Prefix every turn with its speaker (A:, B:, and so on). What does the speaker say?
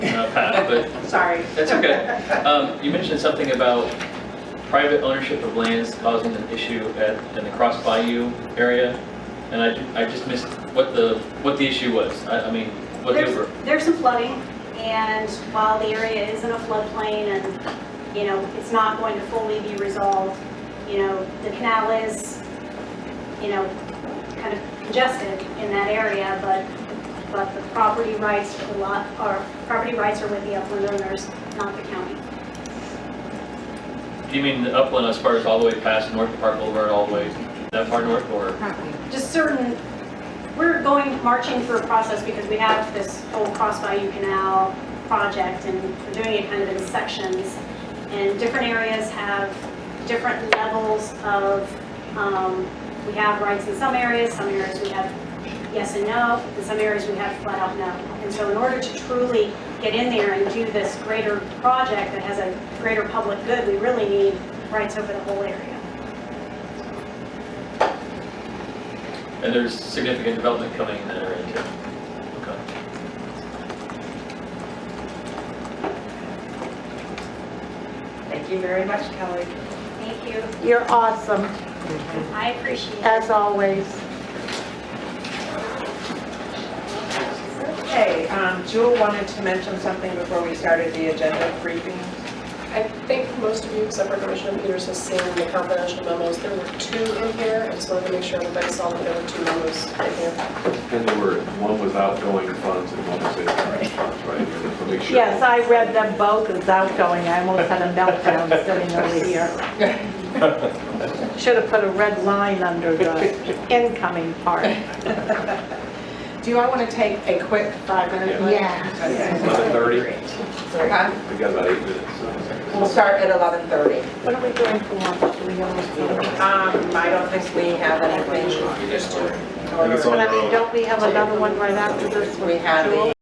A: but
B: Sorry.
A: that's okay. Um, You mentioned something about private ownership of lands causing an issue at, in the Cross Bayou area, and I, ju- I just missed what the, what the issue was, I, I mean, what they were.
B: There's, there's some flooding, and while the area is in a floodplain and, you know, it's not going to fully be resolved, you know, the canal is, you know, kind of congested in that area, but, but the property rights for the lot, or property rights are with the upland owners, not the county.
A: Do you mean the upland as far as all the way past North Park Boulevard, all the way that far north, or?
B: just certain, we're going, marching through a process because we have this whole Cross Bayou Canal project and we're doing it kind of in sections. And different areas have different levels of, um, we have rights in some areas, some areas we have yes and no, in some areas we have flat out no. And so in order to truly get in there and do this greater project that has a greater public good, we really need rights over the whole area.
A: And there's significant development coming in that area too. Okay.
C: Thank you very much, Kelly.
B: Thank you.
D: You're awesome,
B: I appreciate it.
D: as always.
C: Okay, um, Jewel wanted to mention something before we started the agenda briefing.
E: I think most of you, except for Commissioner Peters, has seen the confidential memos. There were two in here, I just wanted to make sure everybody saw that there were two memos in here.
F: And there were, one was outgoing funds and one was incoming funds, right? To make sure.
D: Yes, I read them both as outgoing, I almost had a meltdown sitting over here. Should have put a red line under the incoming part.
E: Do I want to take a quick five-minute
F: Yeah. Eleven thirty,
C: Okay,
F: we got about eight minutes. so-
C: We'll start at 11:30.
D: What are we doing for lunch? Do we almost do it?
C: Um, I don't think we have anything.
F: I think it's on
D: But
F: your
D: I mean,
F: own.
D: don't we have another one right after this one?
C: We had the